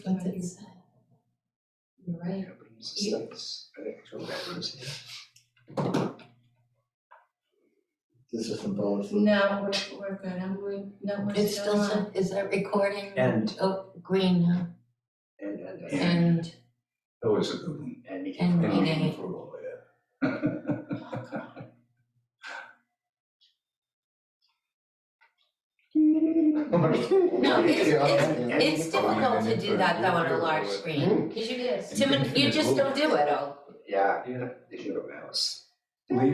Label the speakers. Speaker 1: Right.
Speaker 2: companies and stuff, it's an actual reference.
Speaker 3: This is from policy.
Speaker 1: No, we're, we're good, I'm, we, no, we're
Speaker 4: It's
Speaker 1: still
Speaker 4: still,
Speaker 1: on.
Speaker 4: is that recording?
Speaker 2: And,
Speaker 4: Oh, green, huh?
Speaker 2: and, and, and.
Speaker 4: and,
Speaker 2: That was a good one.
Speaker 5: And we can
Speaker 4: and
Speaker 2: And
Speaker 4: meeting.
Speaker 3: Approval, yeah.
Speaker 4: No, it's,
Speaker 3: Yeah.
Speaker 4: it's, it's difficult to do that though on a large screen, cause you,
Speaker 1: It is.
Speaker 4: Tim, you just don't do it all.
Speaker 2: Yeah, yeah, they should have asked.